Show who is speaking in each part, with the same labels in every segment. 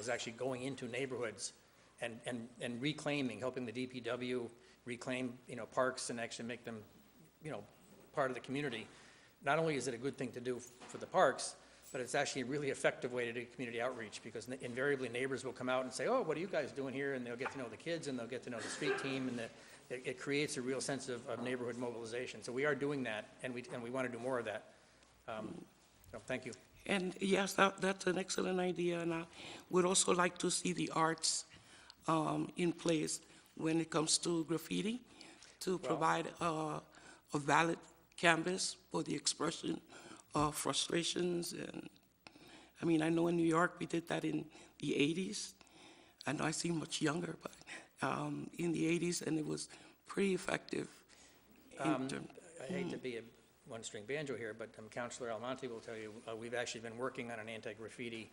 Speaker 1: was actually going into neighborhoods and, and, and reclaiming, helping the DPW reclaim, you know, parks and actually make them, you know, part of the community. Not only is it a good thing to do f- for the parks, but it's actually a really effective way to do community outreach, because n- invariably neighbors will come out and say, oh, what are you guys doing here? And they'll get to know the kids, and they'll get to know the street team, and the, it, it creates a real sense of, of neighborhood mobilization. So we are doing that, and we, and we want to do more of that. Um, So, thank you.
Speaker 2: And yes, that, that's an excellent idea, and I would also like to see the arts um, in place when it comes to graffiti, to provide uh, a valid canvas for the expression of frustrations and, I mean, I know in New York, we did that in the 80s. I know I seem much younger, but um, in the 80s, and it was pretty effective. in term-
Speaker 1: I hate to be a one-string banjo here, but um, Counselor Almonte will tell you, uh, we've actually been working on an anti-graffiti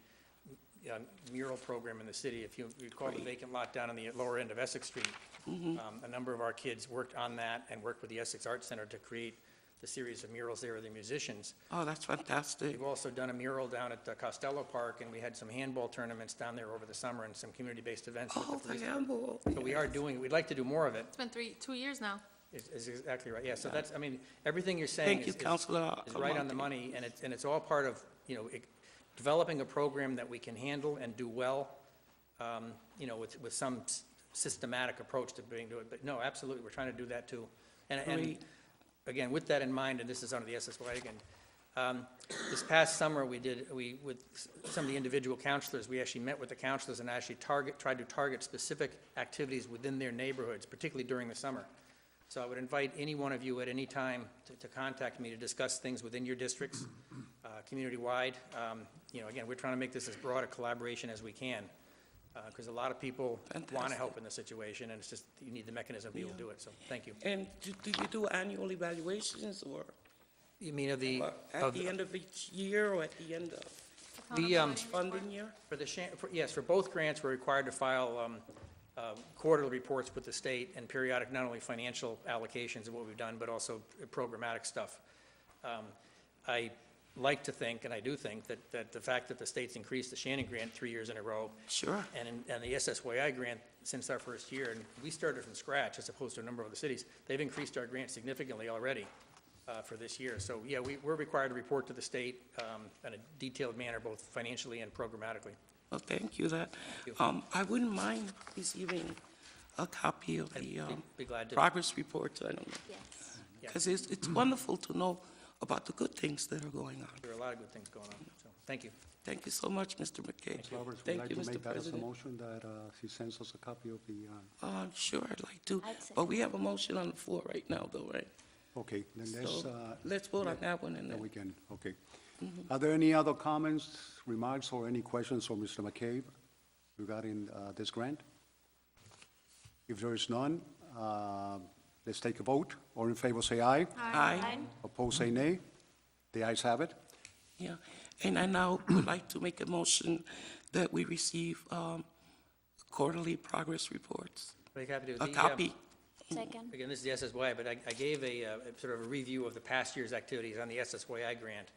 Speaker 1: um, mural program in the city. If you recall the vacant lot down on the lower end of Essex Street, um, a number of our kids worked on that and worked with the Essex Art Center to create the series of murals there with the musicians.
Speaker 2: Oh, that's fantastic.
Speaker 1: We've also done a mural down at uh, Costello Park, and we had some handball tournaments down there over the summer and some community-based events with the
Speaker 2: Oh, the
Speaker 1: police.
Speaker 2: handball.
Speaker 1: So we are doing, we'd like to do more of it.
Speaker 3: It's been three, two years now.
Speaker 1: Is is exactly right, yeah, so that's, I mean, everything you're saying
Speaker 2: Thank you,
Speaker 1: is, is
Speaker 2: Counselor
Speaker 1: is right on the
Speaker 2: Almonte.
Speaker 1: money, and it's, and it's all part of, you know, it- developing a program that we can handle and do well, um, you know, with, with some s- systematic approach to being, do it, but no, absolutely, we're trying to do that too. And, and,
Speaker 2: Great.
Speaker 1: again, with that in mind, and this is under the SSY again, um, this past summer, we did, we, with s- some of the individual counselors, we actually met with the counselors and actually target, tried to target specific activities within their neighborhoods, particularly during the summer. So I would invite any one of you at any time to, to contact me to discuss things within your districts, uh, community-wide. Um, You know, again, we're trying to make this as broad a collaboration as we can, because a lot of people want to
Speaker 2: Fantastic.
Speaker 1: help in this situation, and it's just, you need the mechanism to be able to do it, so, thank you.
Speaker 2: And do do you do annual evaluations or
Speaker 1: You mean of the,
Speaker 2: uh, at the end of each year or at the end of
Speaker 1: The, um,
Speaker 3: Accountability report.
Speaker 2: funding year?
Speaker 1: For the, shan- for- yes, for both grants, we're required to file um, uh, quarterly reports with the state and periodic, not only financial allocations of what we've done, but also programmatic stuff. Um, I like to think, and I do think, that, that the fact that the state's increased the Shannon Grant three years in a row,
Speaker 2: Sure.
Speaker 1: and, in- and the SSYI grant since our first year, and we started from scratch as opposed to a number of the cities, they've increased our grant significantly already uh, for this year. So, yeah, we, we're required to report to the state um, in a detailed manner, both financially and programmatically.
Speaker 2: Well, thank you that. Um, I wouldn't mind receiving a copy of the um,
Speaker 1: be glad to.
Speaker 2: progress reports, I don't know.
Speaker 3: Yes.
Speaker 2: Because it's, it's wonderful to know about the good things that are going on.
Speaker 1: There are a lot of good things going on, so, thank you.
Speaker 2: Thank you so much, Mr. McKay.
Speaker 4: Mr. Roberts, would you
Speaker 2: Thank
Speaker 4: like
Speaker 2: you,
Speaker 4: to
Speaker 2: Mr.
Speaker 4: make that as a
Speaker 2: President.
Speaker 4: motion that uh, he sends us a copy of the,
Speaker 2: Uh,
Speaker 4: uh,
Speaker 2: sure, I'd like to.
Speaker 5: I'd second.
Speaker 2: But we have a motion on the floor right now, though, right?
Speaker 4: okay, then there's,
Speaker 2: So
Speaker 4: uh,
Speaker 2: let's Mm-hmm. vote on that one and
Speaker 4: then we
Speaker 2: then,
Speaker 4: can, okay. Are there any other comments, remarks, or any questions for Mr. McCabe regarding uh, this grant? If there is none, uh, let's take a vote. All in favor, say aye.
Speaker 2: aye.
Speaker 4: Opposed, say nay. The ayes have it.
Speaker 2: Yeah, and I now would like to make a motion that we receive um, quarterly progress reports,
Speaker 1: Very happy to.
Speaker 2: a
Speaker 1: the, um,
Speaker 2: copy.
Speaker 5: Second.
Speaker 1: Again, this is the SSYI, but I, I gave a, uh, sort of a review of the past year's activities on the SSYI grant,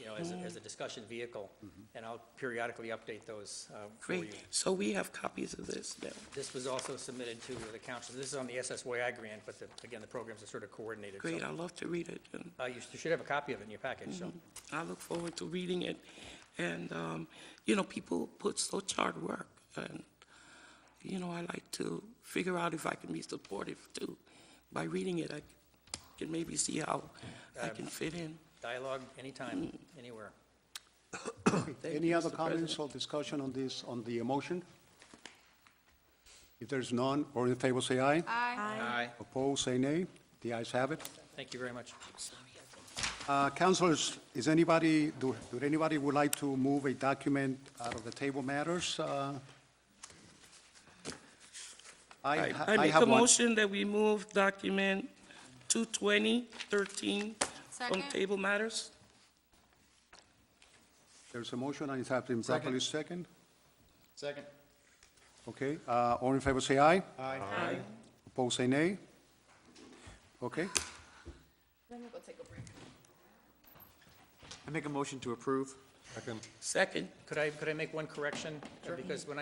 Speaker 1: you know, as, a- as a discussion vehicle, and I'll periodically update those uh, for you.
Speaker 2: Mm-hmm. Great, so we have copies of this now.
Speaker 1: This was also submitted to the council, this is on the SSYI grant, but the, again, the programs are sort of coordinated. so-
Speaker 2: Great, I love to read it, and
Speaker 1: Uh, you should- you should have a copy of it in your package, so,
Speaker 2: I look forward to reading it. And, um, you know, people put such hard work, and, you know, I like to figure out if I can be supportive too. By reading it, I can maybe see how I can fit in.
Speaker 1: dialogue anytime,
Speaker 2: Mm-hmm.
Speaker 1: anywhere.
Speaker 2: Thank
Speaker 4: Any
Speaker 2: you,
Speaker 4: other
Speaker 2: Mr.
Speaker 4: comments or discussion on this, on the motion? If there is none, all in favor, say aye.
Speaker 3: Aye.
Speaker 1: Aye.
Speaker 4: Opposed, say nay. The ayes have it.
Speaker 1: Thank you very much.
Speaker 4: Uh, Councilors, is anybody, do do anybody would like to move a document out of the table matters? Uh, I
Speaker 2: I
Speaker 4: ha-
Speaker 2: I make a
Speaker 4: have one.
Speaker 2: motion that we move document 22013 from
Speaker 3: Second.
Speaker 2: table matters.
Speaker 4: There's a motion, and it has been properly second.
Speaker 6: Second.
Speaker 4: Okay, uh, all in favor, say aye.
Speaker 2: Aye.
Speaker 4: Opposed, say nay. Okay,
Speaker 6: I make a motion to approve.
Speaker 2: Second.
Speaker 1: Could I, could I make one correction? Because when I